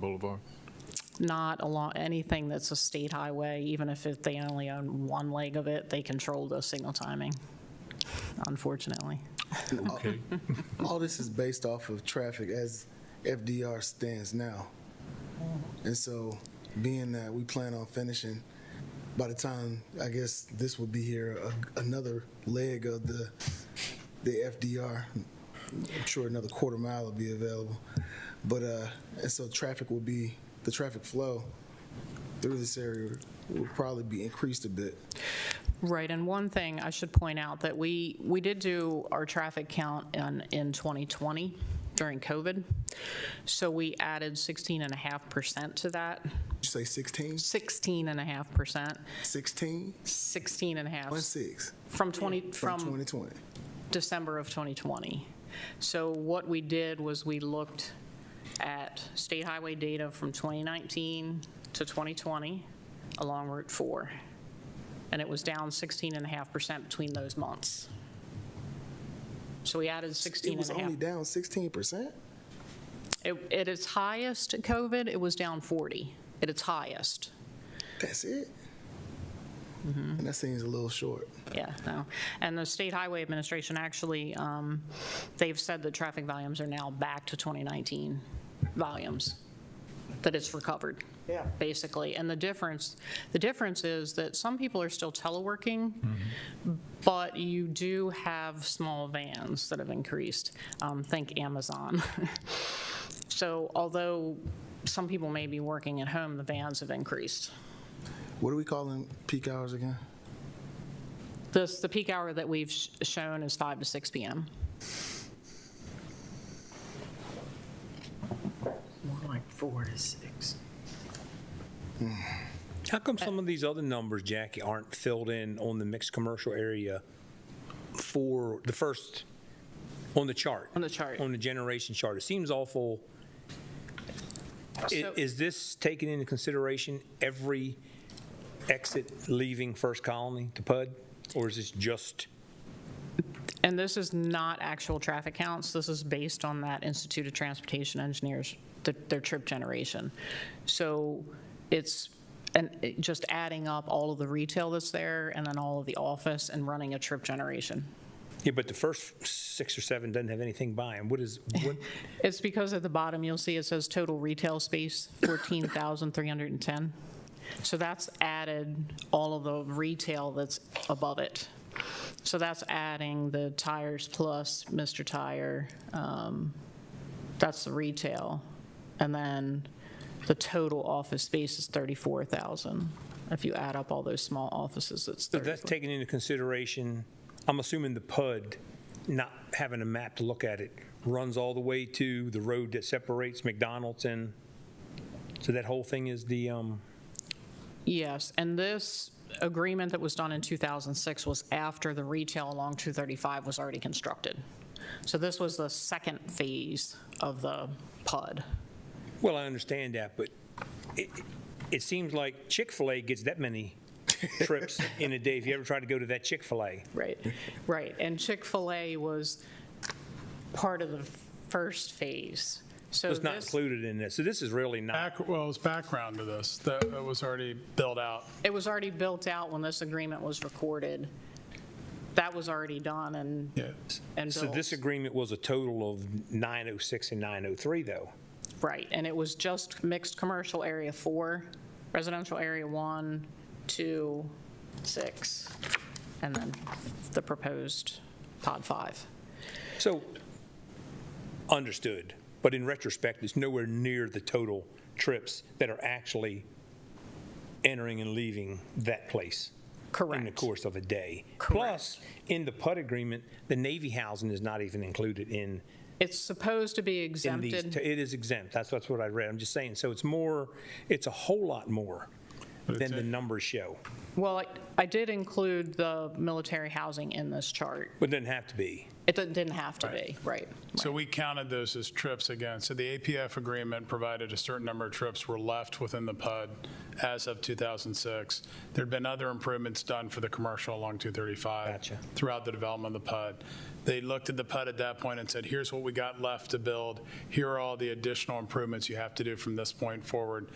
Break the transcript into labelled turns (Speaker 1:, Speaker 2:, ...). Speaker 1: Boulevard?
Speaker 2: not along, anything that's a state highway, even if it- they only own one leg of it, they control the signal timing, unfortunately.
Speaker 1: Okay.
Speaker 3: All this is based off of traffic as FDR stands now. And so, being that we plan on finishing, by the time, I guess this would be here, a- another leg of the, the FDR. I'm sure another quarter mile will be available. But, uh, and so traffic will be, the traffic flow through this area will probably be increased a bit.
Speaker 2: Right, and one thing I should point out, that we, we did do our traffic count in, in 2020 during COVID, so we added 16 and a half percent to that,
Speaker 3: Did you say 16?
Speaker 2: 16 and a half percent,
Speaker 3: 16?
Speaker 2: 16 and a half,
Speaker 3: One six
Speaker 2: from 20, from
Speaker 3: from 2020.
Speaker 2: December of 2020. So what we did was we looked at state highway data from 2019 to 2020 along Route 4, and it was down 16.5% between those months. So we added 16
Speaker 3: It was
Speaker 2: and a half.
Speaker 3: only down 16%?
Speaker 2: It- At its highest at COVID, it was down 40, at its highest.
Speaker 3: That's it.
Speaker 2: Mm-hmm.
Speaker 3: And that seems a little short.
Speaker 2: Yeah, no. And the State Highway Administration actually, um, they've said that traffic volumes are now back to 2019 volumes, that it's recovered. Yeah. Basically. And the difference, the difference is that some people are still teleworking, but you do have small vans that have increased. Um, Think Amazon. So although some people may be working at home, the vans have increased.
Speaker 3: What are we calling peak hours again?
Speaker 2: This, the peak hour that we've sh- shown is 5 to 6 PM.
Speaker 4: More like four to six.
Speaker 5: How
Speaker 2: Uh,
Speaker 5: come some of these other numbers, Jackie, aren't filled in on the mixed commercial area for the first, on the chart?
Speaker 2: On the chart.
Speaker 5: On the generation chart. It seems awful. I-
Speaker 2: So-
Speaker 5: Is this taking into consideration every exit leaving First Colony to PUD? Or is this just,
Speaker 2: And this is not actual traffic counts, this is based on that Institute of Transportation Engineers, th- their trip generation. So it's, and it- just adding up all of the retail that's there, and then all of the office, and running a trip generation.
Speaker 5: yeah, but the first six or seven doesn't have anything by them. What is, what,
Speaker 2: It's because at the bottom, you'll see it says total retail space, 14,310. So that's added all of the retail that's above it. So that's adding the Tires Plus, Mr. Tire, um, that's the retail. And then the total office space is 34,000. If you add up all those small offices, it's
Speaker 5: so that's
Speaker 2: 34.
Speaker 5: taking into consideration, I'm assuming the PUD, not having a map to look at it, runs all the way to the road that separates McDonald's and, so that whole thing is the, um,
Speaker 2: Yes, and this agreement that was done in 2006 was after the retail along 235 was already constructed. So this was the second phase of the PUD.
Speaker 5: well, I understand that, but it, it seems like Chick-fil-A gets that many trips in a day if you ever try to go to that Chick-fil-A.
Speaker 2: Right. Right, and Chick-fil-A was part of the first phase. So
Speaker 5: It's not
Speaker 2: this,
Speaker 5: included in this, so this is really not,
Speaker 1: Back, well, it's background to this, that was already built out.
Speaker 2: it was already built out when this agreement was recorded. That was already done and,
Speaker 1: Yeah.
Speaker 2: and
Speaker 5: so this
Speaker 2: built.
Speaker 5: agreement was a total of 906 and 903, though.
Speaker 2: Right, and it was just mixed commercial area four, residential area one, two, six, and then the proposed pod five.
Speaker 5: So, understood, but in retrospect, it's nowhere near the total trips that are actually entering and leaving that place. In the
Speaker 2: Correct.
Speaker 5: course of a day.
Speaker 2: Correct.
Speaker 5: Plus, in the PUD agreement, the Navy housing is not even included in,
Speaker 2: It's supposed to be
Speaker 5: in these.
Speaker 2: exempted.
Speaker 5: It is exempt, that's, that's what I read, I'm just saying, so it's more, it's a whole lot more than the numbers show,
Speaker 2: Well, I- I did include the military housing in this chart.
Speaker 5: but it doesn't have to be.
Speaker 2: It didn't didn't have to be, right.
Speaker 1: So we counted those as trips again. So the APF agreement provided a certain number of trips were left within the PUD as of 2006. There'd been other improvements done for the commercial along 235.
Speaker 5: Gotcha.
Speaker 1: Throughout the development of the PUD. They looked at the PUD at that point and said, here's what we got left to build. Here are all the additional improvements you have to do from this point forward